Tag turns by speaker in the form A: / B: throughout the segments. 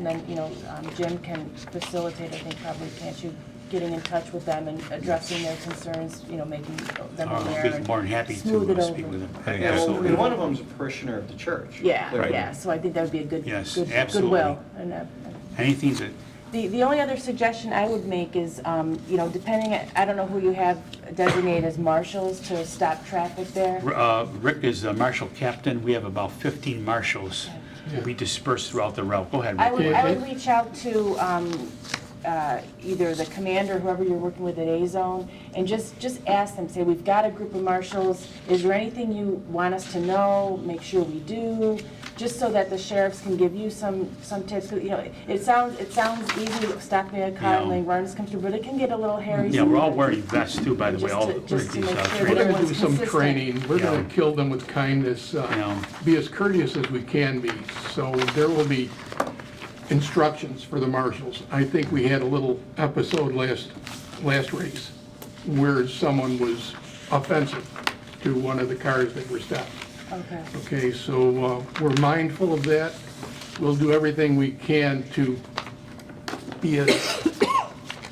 A: And then, you know, um, Jim can facilitate, I think probably, can't you, getting in touch with them and addressing their concerns, you know, making them
B: I'll
A: aware.
B: be
A: and
B: Ah, uh, more than happy to,
A: smooth it
B: uh, speak
A: over.
B: with them.
C: Hey,
B: Yeah, absolutely.
C: well, we
A: Absolutely.
C: And one of them's a parishioner of the church.
A: Yeah,
C: clearly.
A: yeah, so I think that would be a good,
B: Yes,
A: good
B: absolutely.
A: goodwill. and, uh,
B: Anything that,
A: The, the only other suggestion I would make is, um, you know, depending, I don't know who you have designated as marshals to stop traffic there.
B: uh, Rick is a marshal captain, we have about 15 marshals. We disperse throughout the route. Go ahead,
A: I
B: Rick.
A: would, I would reach out to um, uh, either the commander, whoever you're working with at A-Zone, and just, just ask them, say, we've got a group of marshals, is there anything you want us to know, make sure we do, just so that the sheriffs can give you some, some tips, you know, it sounds, it sounds easy, stopping a car,
B: Yeah.
A: and letting runners come through, but it can get a little hairy.
B: Yeah, we're all
A: sometimes.
B: wearing vests too, by the way,
A: Just
B: all
A: to- just to
B: these,
A: make
B: uh,
A: sure
B: training.
A: that
D: We're gonna do
A: Everyone's
D: some
A: consistent.
D: training, we're gonna
B: Yeah.
D: kill them with kindness, uh,
B: Yeah.
D: be as courteous as we can be, so there will be instructions for the marshals. I think we had a little episode last, last race where someone was offensive to one of the cars that were stopped.
A: Okay.
D: Okay, so uh, we're mindful of that, we'll do everything we can to be as,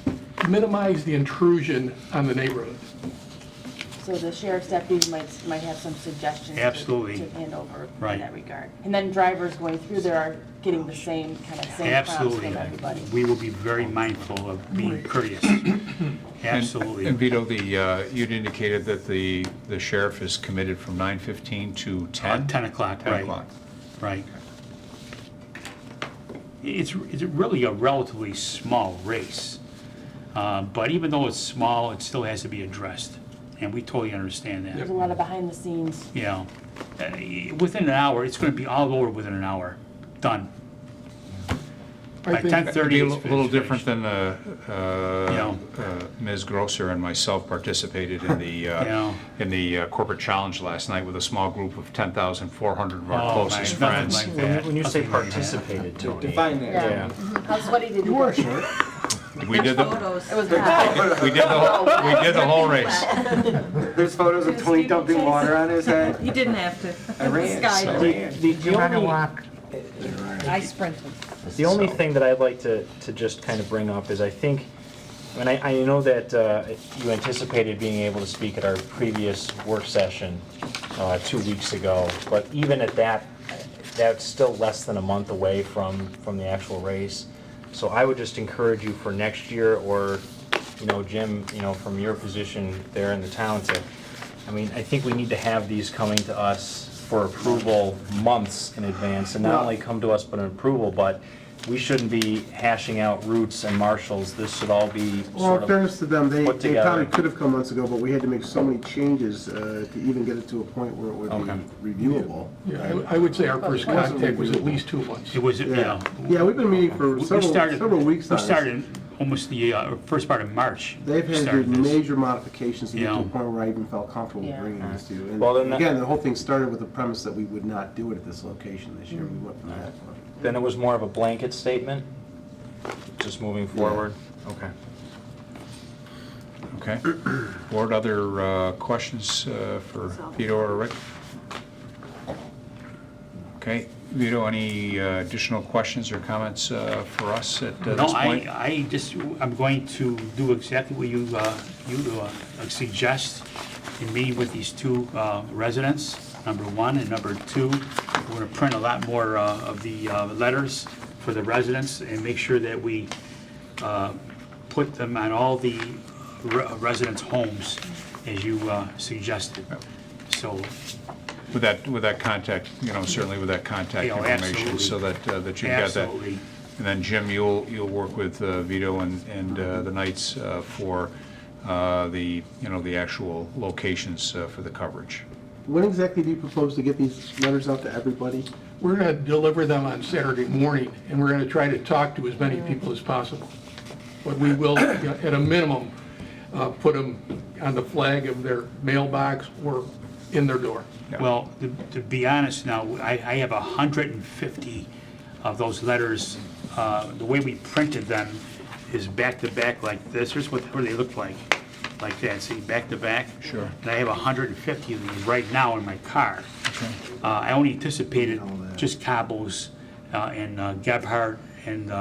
D: minimize the intrusion on the neighborhood.
A: So the sheriff's deputies might, might have some suggestions. to-
B: Absolutely.
A: To hand over in
B: Right.
A: that regard. And then drivers going through there are getting the same, kind of same prompts
B: Absolutely.
A: from everybody.
B: We will be very mindful of being courteous.
C: And-
B: Absolutely.
C: And Vito, the, uh, you'd indicated that the the sheriff is committed from 9:15 to 10?
B: Uh, 10 o'clock,
C: 10
B: right.
C: o'clock.
B: Right. It's, it's really a relatively small race. Uh, But even though it's small, it still has to be addressed. And we totally understand that.
A: There's a lot of behind the scenes.
B: You know, Uh, within an hour, it's going to be all over within an hour. Done.
D: I
B: By
D: think-
B: 10:30.
C: It'd be a
B: it's
C: li- little
B: finished.
C: different than uh, uh, uh, Ms. Grosser and myself participated in the,
B: Yeah.
C: uh, in the uh, corporate challenge last night with a small group of 10,400 of our
B: Oh,
C: closest
B: my- nothing
C: friends.
B: like
E: When you-
B: that.
E: when you say
B: Nothing like that.
E: participated, Tony.
F: Define that.
A: How sweaty did you get?
C: We did the,
A: It was hot.
C: we did the, whole- we did the whole race.
F: There's photos of Tony dumping water on his head.
G: He didn't have to.
F: I ran.
G: Sky
F: so-
G: did.
E: The- the only-
G: I sprinted.
E: The only thing that I'd like to, to just kind of bring up is I think, and I, I know that uh, you anticipated being able to speak at our previous work session uh, two weeks ago, but even at that, that's still less than a month away from, from the actual race. So I would just encourage you for next year or, you know, Jim, you know, from your position there in the town to, I mean, I think we need to have these coming to us for approval months in advance, and not only come to us but an approval, but we shouldn't be hashing out routes and marshals. This should all be
H: Well, in
E: sort of,
H: fairness to them, they,
E: put
H: they probably
E: together.
H: could have come months ago, but we had to make so many changes uh, to even get it to a point where it would
C: Okay.
H: be reviewable.
D: Yeah, I- I would say our first
H: Wasn't
D: contact was at
H: reviewable.
D: least two months.
B: It was, you
H: Yeah,
B: know,
H: yeah, we've been meeting for
B: we
H: several,
B: started-
H: several weeks now.
B: We started almost the uh, first part of March.
H: They've had to do
B: started this.
H: major modifications to get to
B: Yeah.
H: a point where I even felt comfortable
A: Yeah.
H: bringing this to you.
E: Well, then
H: And
E: that-
H: again, the whole thing started with the premise that we would not do it at this location this year. We went from that.
E: then it was more of a blanket statement, just moving forward? Okay.
C: Okay. Board, other uh, questions uh, for Vito or Rick? Okay, Vito, any uh, additional questions or comments uh, for us at uh,
B: No,
C: this
B: I,
C: point?
B: I just, I'm going to do exactly what you, uh, you uh, suggest in meeting with these two uh, residents, number one, and number two, we're gonna print a lot more uh, of the uh, letters for the residents and make sure that we uh, put them on all the re- residents' homes as you uh, suggested. So,
C: With that, with that contact, you know, certainly with that contact
B: Yeah, oh,
C: information, so
B: absolutely.
C: that, uh, that you've got that.
B: absolutely,
C: And then Jim, you'll, you'll work with uh, Vito and, and uh, the Knights uh, for uh, the, you know, the actual locations uh, for the coverage.
H: When exactly do you propose to get these letters out to everybody?
D: We're gonna deliver them on Saturday morning, and we're gonna try to talk to as many people as possible. But we will, you know, at a minimum, uh, put them on the flag of their mailbox or in their door.
B: Well, to- to be honest now, I, I have 150 of those letters. Uh, The way we printed them is back-to-back like this. Here's what, what they look like, like that, see, back-to-back.
C: Sure.
B: And I have 150 of these right now in my car. Uh, I only anticipated just Cabos uh, and uh, Gebhardt and uh,